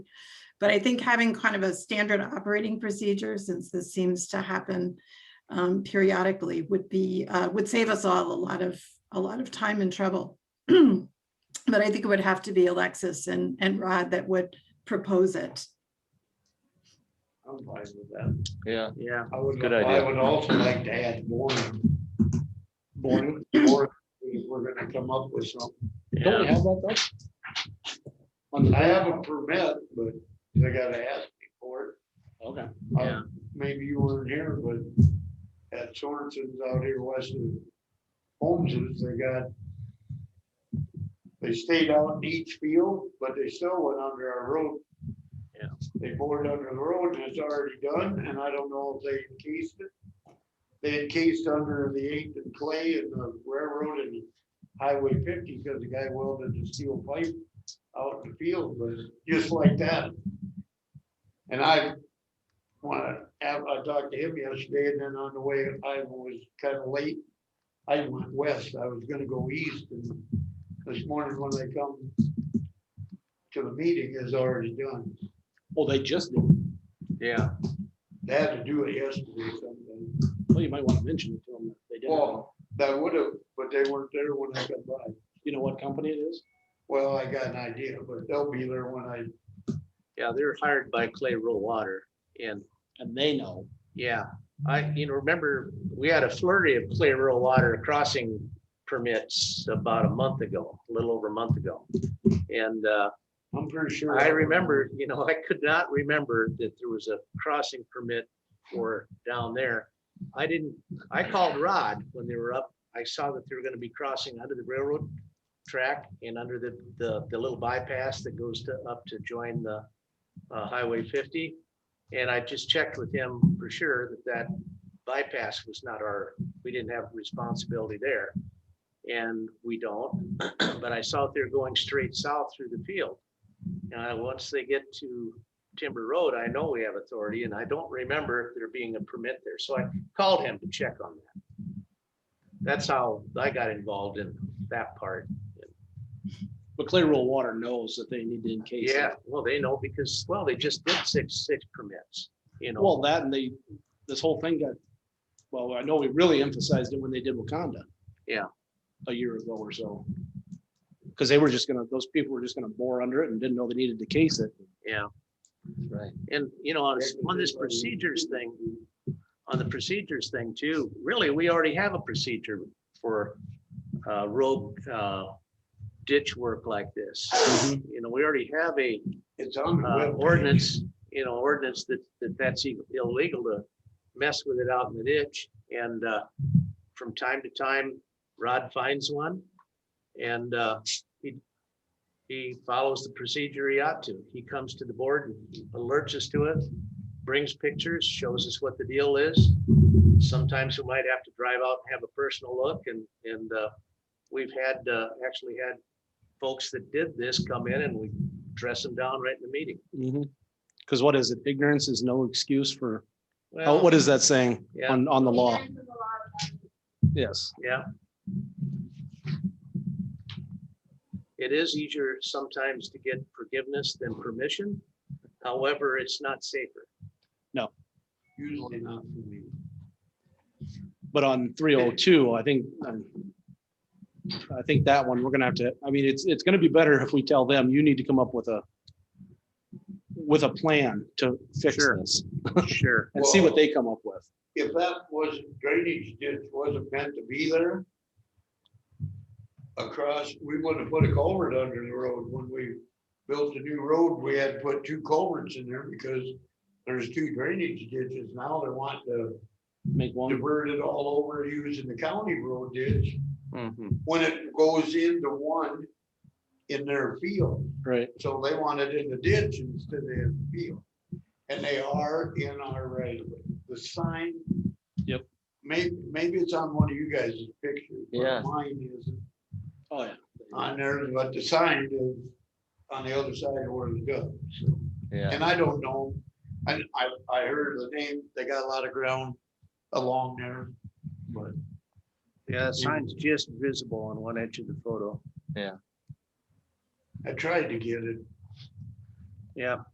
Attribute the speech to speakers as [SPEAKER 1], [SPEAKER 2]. [SPEAKER 1] But I think having kind of a standard operating procedure, since this seems to happen um, periodically, would be, uh, would save us all a lot of, a lot of time and trouble. But I think it would have to be Alexis and, and Rod that would propose it.
[SPEAKER 2] I'm fine with that.
[SPEAKER 3] Yeah,
[SPEAKER 2] Yeah.
[SPEAKER 4] I would,
[SPEAKER 3] Good
[SPEAKER 4] I
[SPEAKER 3] idea.
[SPEAKER 4] would also like to add morning. Morning, or if we're gonna come up with something.
[SPEAKER 3] yeah,
[SPEAKER 4] have that though? I have a permit, but I gotta ask me for
[SPEAKER 5] Okay.
[SPEAKER 4] it. Uh,
[SPEAKER 5] Yeah.
[SPEAKER 4] Maybe you weren't here, but at Sorensen's out here west of Holmes's, they got. They stayed out in each field, but they still went under our road.
[SPEAKER 5] Yeah.
[SPEAKER 4] They bored under the road and it's already done, and I don't know if they encased it. They encased under the eighth and clay and the railroad and highway fifty, because the guy welded the steel pipe out in the field, but it's just like that. And I wanna have, I talked to him yesterday, and then on the way, I was kinda late. I went west, I was gonna go east, and this morning when I come to the meeting is already done.
[SPEAKER 5] Well, they just, did.
[SPEAKER 3] yeah.
[SPEAKER 4] They had to do it yesterday sometime.
[SPEAKER 5] well, you might want to mention it to them. that They did. it.
[SPEAKER 4] Well, that would have, but they weren't there when I got by.
[SPEAKER 5] You know what company it is?
[SPEAKER 4] Well, I got an idea, but they'll be there when I,
[SPEAKER 3] Yeah, they're hired by Clay Rural Water and
[SPEAKER 5] And they know.
[SPEAKER 3] yeah, I, you know, remember, we had a flurry of Clay Rural Water crossing permits about a month ago, a little over a month ago. And uh,
[SPEAKER 4] I'm pretty sure.
[SPEAKER 3] I remember, you know, I could not remember that there was a crossing permit for down there. I didn't, I called Rod when they were up. I saw that they were gonna be crossing under the railroad track and under the, the, the little bypass that goes to, up to join the uh, Highway fifty. And I just checked with him for sure that that bypass was not our, we didn't have responsibility there. And we don't, but I saw that they're going straight south through the field. And I- once they get to Timber Road, I know we have authority and I don't remember there being a permit there. So I called him to check on that. That's how I got involved in that part.
[SPEAKER 5] But Clay Rural Water knows that they need to encase. it.
[SPEAKER 3] Yeah, well, they know because, well, they just did six, six permits, you know.
[SPEAKER 5] Well, that and they, this whole thing got, well, I know we really emphasized it when they did Wakanda.
[SPEAKER 3] Yeah.
[SPEAKER 5] A year ago or so. Because they were just gonna, those people were just gonna bore under it and didn't know they needed to case it.
[SPEAKER 3] Yeah.
[SPEAKER 5] Right.
[SPEAKER 3] And, you know, on this- on this procedures thing, on the procedures thing too, really, we already have a procedure for uh, road uh, ditch work like this.
[SPEAKER 5] Mm-hmm.
[SPEAKER 3] You know, we already have a
[SPEAKER 4] It's on the
[SPEAKER 3] uh,
[SPEAKER 4] webpage.
[SPEAKER 3] ordinance, you know, ordinance that, that that's e- illegal to mess with it out in the ditch. And uh, from time to time, Rod finds one. And uh, he, he follows the procedure he ought to. He comes to the board and alerts us to it, brings pictures, shows us what the deal is. Sometimes we might have to drive out and have a personal look and, and uh, we've had, uh, actually had folks that did this come in and we dress them down right in the meeting.
[SPEAKER 5] Because what is it? Ignorance is no excuse for, oh,
[SPEAKER 3] Well,
[SPEAKER 5] what is that saying
[SPEAKER 3] Yeah.
[SPEAKER 5] on, on the law? Yes.
[SPEAKER 3] Yeah. It is easier sometimes to get forgiveness than permission. However, it's not safer.
[SPEAKER 4] Usually not for me.
[SPEAKER 5] But on three oh two, I think, um, I think that one, we're gonna have to, I mean, it's, it's gonna be better if we tell them, you need to come up with a, with a plan to fix
[SPEAKER 3] Sure.
[SPEAKER 5] this
[SPEAKER 3] Sure.
[SPEAKER 5] and see what they come up with.
[SPEAKER 4] if that wasn't drainage ditch wasn't meant to be there. Across, we wouldn't have put a culvert under the road when we built the new road, we had to put two culverts in there because. There's two drainage ditches now, they want to
[SPEAKER 5] Make one,
[SPEAKER 4] divert it all over using the county road ditch. When it goes into one in their field,
[SPEAKER 5] right,
[SPEAKER 4] so they want it in the ditch instead of in the field. And they are in our right of way. The sign.
[SPEAKER 5] Yep.
[SPEAKER 4] May, maybe it's on one of you guys' pictures. but
[SPEAKER 3] Yeah.
[SPEAKER 4] Mine isn't
[SPEAKER 5] oh, yeah.
[SPEAKER 3] Uh,
[SPEAKER 4] on there, but the sign is on the other side of where it goes. so.
[SPEAKER 3] Yeah.
[SPEAKER 4] And I don't know. I, I, I heard the name. They got a lot of ground along there. But
[SPEAKER 3] Yeah, the sign's just visible on one edge of the photo.
[SPEAKER 4] I tried to get it
[SPEAKER 3] Yeah.